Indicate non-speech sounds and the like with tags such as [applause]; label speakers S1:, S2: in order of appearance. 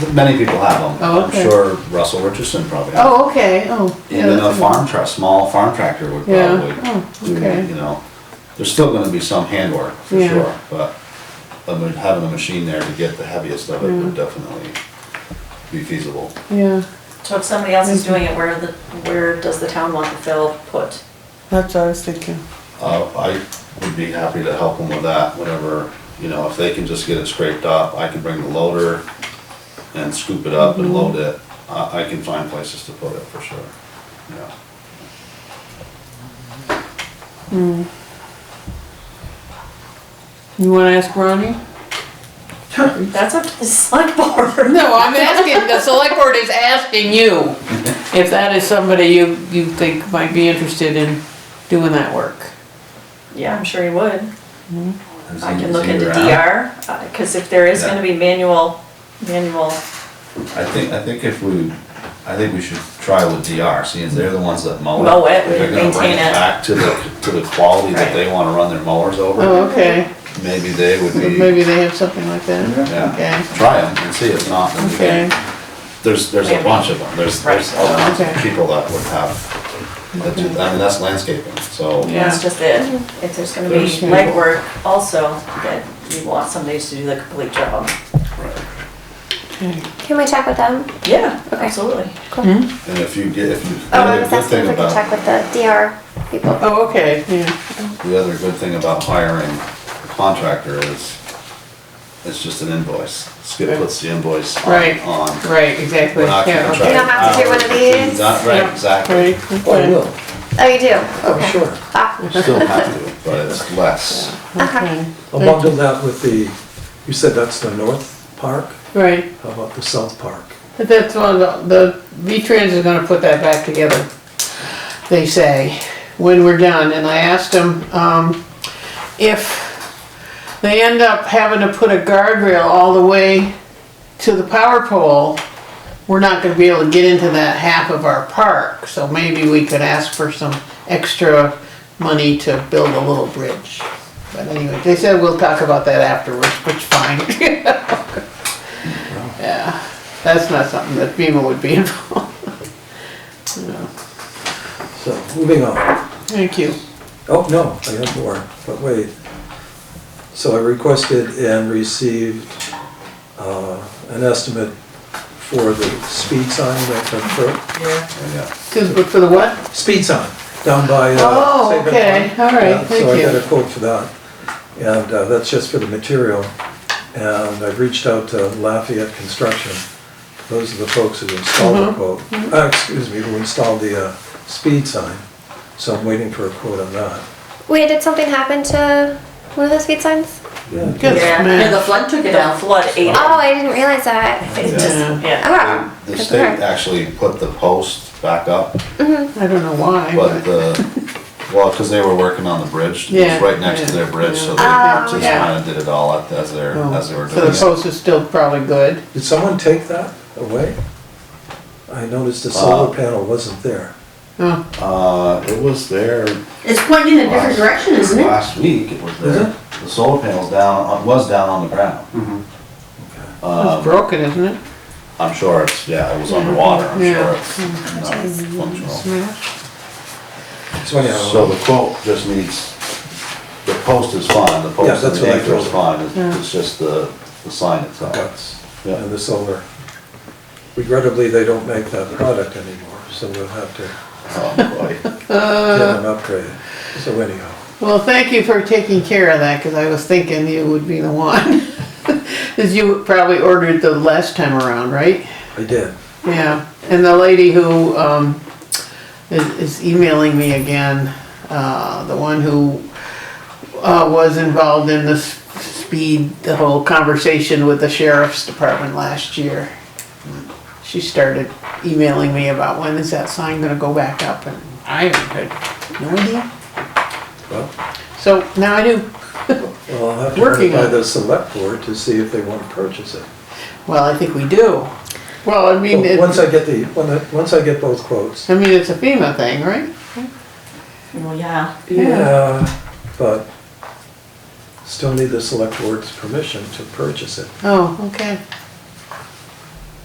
S1: Many people have them.
S2: Oh,
S1: I'm
S2: okay.
S1: sure Russell Richardson probably has.
S2: Oh, okay, oh. yeah,
S1: Even a
S2: that's
S1: farm truck, small farm tractor would
S2: Yeah.
S1: probably,
S2: Oh, okay.
S1: you know, there's still gonna be some handwork for
S2: Yeah.
S1: sure, but I mean, having a machine there to get the heaviest of it would definitely be feasible.
S2: Yeah,
S3: So if somebody else is doing it, where the, where does the town want the fill put?
S4: That's what I was thinking.
S1: Uh, I would be happy to help them with that, whatever, you know, if they can just get it scraped up, I can bring the loader and scoop it up
S2: Mm-hmm.
S1: and load it. I, I can find places to put it for sure, yeah.
S2: you wanna ask Ronnie?
S3: That's up to the select [laughs] board.
S2: No, I'm asking, the select board is
S1: [laughs]
S2: asking you if that is somebody you, you think might be interested in doing that work.
S3: Yeah, I'm sure he would. I can look
S1: Is he
S3: into
S1: around?
S3: DR, uh, cause if there is gonna be manual, manual,
S1: I think, I think if we, I think we should try with DR, seeing as they're the ones that mow it.
S3: Mow it, we
S1: They're gonna bring
S3: maintain it.
S1: Back to the, to the quality that they wanna run their mowers over,
S2: Oh, okay,
S1: maybe they would
S2: So
S1: be,
S2: maybe they have something like that,
S1: yeah,
S2: okay.
S1: try them and see if not, then we
S2: okay,
S1: can. There's, there's a bunch of them, there's, there's all kinds of
S2: Okay.
S1: people that would have, that do, I mean, that's landscaping, so.
S2: Yeah.
S3: that's just it. If there's gonna be
S1: There's people.
S3: legwork also, that you want somebody to do the complete job.
S1: Right.
S2: okay.
S5: Can we check with them?
S3: Yeah,
S5: Okay.
S3: absolutely.
S1: And if you get, if you, the
S5: Oh, I
S1: other
S5: was
S1: good
S5: asking
S1: thing
S5: if we could check
S1: about,
S5: with the DR people.
S2: Oh, okay, yeah,
S1: the other good thing about hiring a contractor is, it's just an invoice. Skip puts the invoice on,
S2: Right.
S1: on
S2: right, exactly,
S1: We're not gonna
S2: yeah,
S1: try
S2: okay.
S5: You don't have to do one of these?
S1: Not right, exactly.
S2: Right,
S1: Oh, I
S2: okay.
S1: will.
S5: Oh, you do?
S6: Oh, sure.
S5: Ah,
S1: Still have to, but it's less.
S5: okay.
S6: I'll bundle that with the, you said that's the north park?
S2: Right,
S6: How about the south park?
S2: but that's one of the, the V-Trans is gonna put that back together, they say, when we're done, and I asked them, um, if they end up having to put a guardrail all the way to the power pole, we're not gonna be able to get into that half of our park, so maybe we could ask for some extra money to build a little bridge. But anyway, they said we'll talk about that afterwards, which fine. [laughs] Yeah, that's not something that FEMA would be [laughs] involved. No.
S6: So, moving on.
S2: Thank you.
S6: Oh, no, I have more, but wait. So I requested and received uh, an estimate for the speed sign that comes
S1: Yeah.
S2: Cause, but for the what?
S6: through. Speed sign down by. uh,
S2: Oh,
S6: Saban
S2: okay,
S6: Pond.
S2: all right,
S6: Yeah,
S2: thank
S6: So I
S2: you.
S6: got a quote for that, and uh, that's just for the material. And I've reached out to Lafayette Construction. Those are the folks who installed
S2: Mm-hmm.
S6: the quote, uh, excuse me, who installed the uh, speed sign. So I'm waiting for a quote on that.
S5: Wait, did something happen to one of those speed signs?
S2: Good man.
S3: flood took it out. The flood ate it.
S5: Oh, I didn't realize that.
S3: It just,
S2: Yeah.
S3: yeah.
S5: Oh.
S1: The
S5: good
S1: state
S5: work.
S1: actually put the post back up,
S2: I don't know why,
S1: but
S2: but,
S1: the, well, cause they were working on the bridge. It
S2: Yeah,
S1: was right next to
S2: yeah,
S1: their bridge, so they
S5: yeah.
S1: just
S2: Yeah.
S1: kinda did it all at- as they're, as they were
S2: oh, so
S1: doing
S2: the
S1: it.
S2: post is still probably good.
S6: Did someone take that away? I noticed the
S1: Uh,
S6: solar panel wasn't there.
S2: Oh,
S1: Uh, it was there
S7: It's pointing in a different
S1: Last-
S7: direction, isn't it?
S1: Last week it was
S6: Is
S1: there.
S6: it?
S1: The solar panel's down, uh, was down on the ground.
S2: it's
S1: Um,
S2: broken, isn't it?
S1: I'm sure it's, yeah, it was underwater, I'm
S2: Yeah.
S1: sure it's not functional.
S2: Smashed.
S6: So
S1: So
S6: anyhow,
S1: the quote just needs, the post is fine, the
S6: Yeah,
S1: post and
S6: that's
S1: the
S6: what I
S1: anchor is
S6: thought.
S1: fine, it's-
S2: Yeah.
S1: it's just the, the sign itself.
S6: guts
S1: Yeah.
S6: and the solar. Regrettably, they don't make that product anymore, so we'll have to
S1: Oh, boy.
S2: Uh,
S6: get an upgrade. So anyhow,
S2: Well, thank you for taking care of that, cause I was thinking you would be the one. [laughs] Cause you probably ordered the last time around, right?
S6: I did.
S2: Yeah, and the lady who, um, is, is emailing me again, uh, the one who, uh, was involved in the s- speed, the whole conversation with the sheriff's department last year. She started emailing me about when is that sign gonna go back up and I had no idea.
S6: Well,
S2: So now I do.
S6: well, I'll have to run
S2: Working
S6: it by
S2: on it.
S6: the select board to see if they want to purchase it.
S2: Well, I think we do. Well, I mean,
S6: Well, Once
S2: it-
S6: I get the, when I- once I get both quotes.
S2: I mean, it's a FEMA thing, right?
S3: Well, yeah.
S6: Yeah. But still need the select board's permission to purchase it.
S2: Oh, okay.